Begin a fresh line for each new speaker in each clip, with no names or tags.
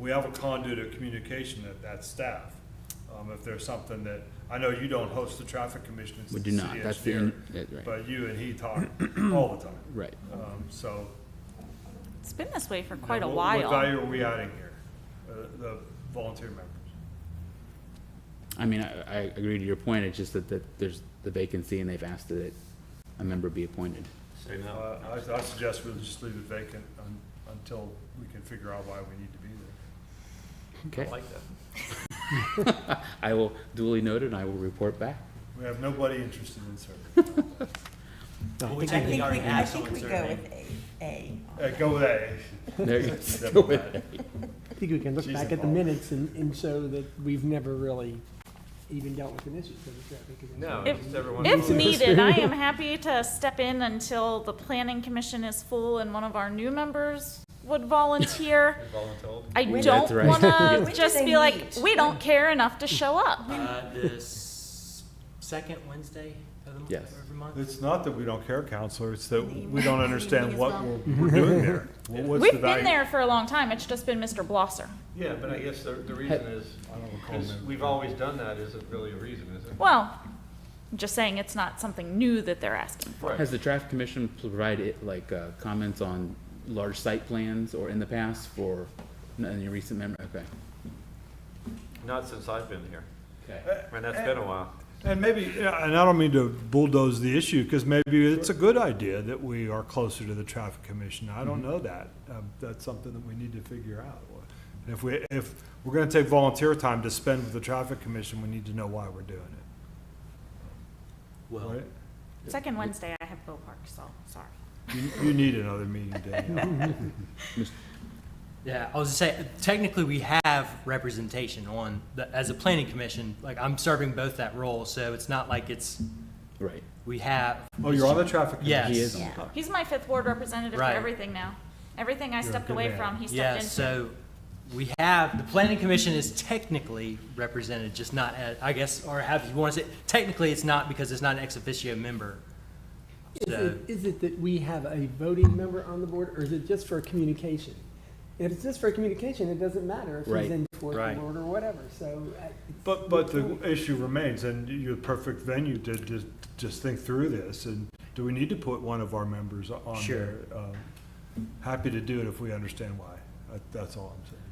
we have a conduit of communication at that staff. Um, if there's something that, I know you don't host the traffic commission, it's
We
the
do
city
not. That's the
engineer.
in- that- right.
But you and he talk all the time.
Right.
Um, so.
It's been this way for
you know,
quite a
what- What
while.
value are we adding here, uh, the volunteer members?
I mean, I, I agree to your point, it's just that, that there's the vacancy and they've asked that a member be appointed.
Say no.
Uh, I, I suggest we just leave it vacant un- until we can figure out why we need to be there.
Okay,
I like that.
I will duly noted and I will report back.
We have nobody interested in serving.
I
I think we, I think we go with A, A.
Uh, go with A.
There you
Doesn't
go.
matter.
I think we can look
She's
back at the
involved.
minutes and, and show that we've never really even dealt with an issue for the traffic. commission.
No,
If-
just everyone.
If needed, I am happy to step in until the planning commission is full and one of our new members would volunteer.
Voluntold.
I
When-
don't
That's right.
wanna
When
do
just
they
be like,
meet?
we don't care enough to show up.
Uh, the s- second Wednesday of the month,
Yes.
every month?
It's not that we don't care, counselor, it's that
Leave.
we don't understand
Leave
what
as
we're
well.
we're doing there. What- What's the
We've been
value?
there for a long time, it's just been Mr. Blosser.
Yeah, but I guess the, the reason is,
I don't recall
because
that.
we've always done that isn't really a reason, is it?
Well, I'm just saying it's not something new that they're asking.
Right.
Has the traffic commission provided, like, uh, comments on large site plans or in the past for, not in your recent memory, okay?
Not since I've been here,
Okay.
and that's been a while.
And maybe, yeah, and I don't mean to bulldoze the issue, because maybe it's a good idea that we are closer to the traffic commission. I don't know that. Um, That's something that we need to figure out. And if we, if we're gonna take volunteer time to spend with the traffic commission, we need to know why we're doing it,
Well,
right?
Second Wednesday, I have Bill Park, so, sorry.
You, you need another meeting, Danielle.
yeah, I was just saying, technically, we have representation on, the- as a planning commission, like, I'm serving both that role, so it's not like it's,
Uh, Right.
we have,
Oh, you're on the traffic commission?
He is
yes.
on the
Yeah.
He's my fifth ward representative for
Right.
everything now. Everything I
You're a
stepped
good
away
man.
from, he
Yeah,
stepped into.
so we have, the planning commission is technically represented, just not, as- I guess, or have, you want to say, technically, it's not because it's not an ex officio member.
Is
So,
it, is it that we have a voting member on the board, or is it just for communication? If it's just for communication, it doesn't matter if
Right.
he's in fourth
Right.
ward or whatever, so. uh, I-
But, but the issue remains, and you're the perfect venue to just, just think through this, and do we need to put one of our members on there?
Sure.
Um, Happy to do it if we understand why, That- that's all I'm saying.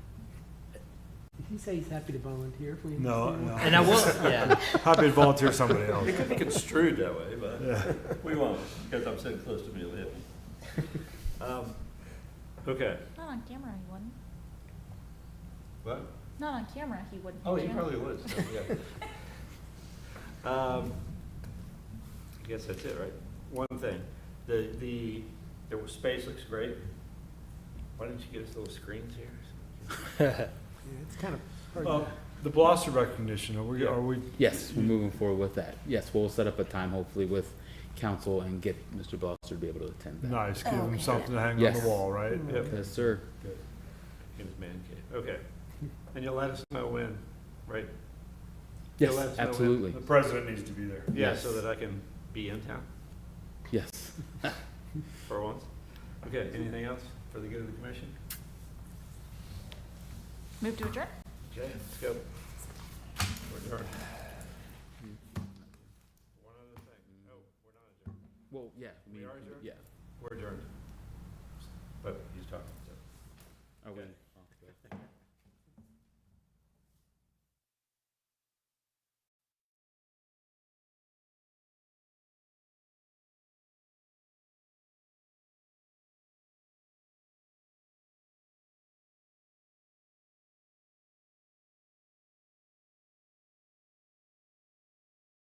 Did he say he's happy to volunteer if we?
No,
understand?
And I
no,
will, yeah.
happy to volunteer somebody else.
It could be construed that way, but we won't, because I'm sitting close to Amelia. Um, Okay.
Not on camera, he wouldn't.
What?
Not on camera, he wouldn't.
Oh, he
Jim.
probably would, so, yeah. Um, I guess that's it, right? One thing, the, the, the space looks great. Why didn't you get us little screens here?
Yeah, It's kind of hard.
Uh,
to-
The Blosser recognition, are we, are we,
Yes, we're moving forward with that. Yes, we'll set up a time hopefully with council and get Mr. Blosser to be able to attend that.
nice, give them
Okay.
something to hang on
Yes.
the wall, right?
Mm.
Yep.
Yes, sir.
In his man cave, okay. And you'll let us know when, right?
Yes,
You'll let us know when?
absolutely.
The president needs to be there.
Yeah,
Yes.
so that I can be in town
Yes.
for once. Okay, anything else for the good of the commission?
Move to adjourn?
Okay, let's go. We're adjourned. One other thing, no, we're not adjourned.
Well, yeah.
We are adjourned?
Yeah.
We're adjourned. But he's talking, so.
Are we-
Okay. Oh,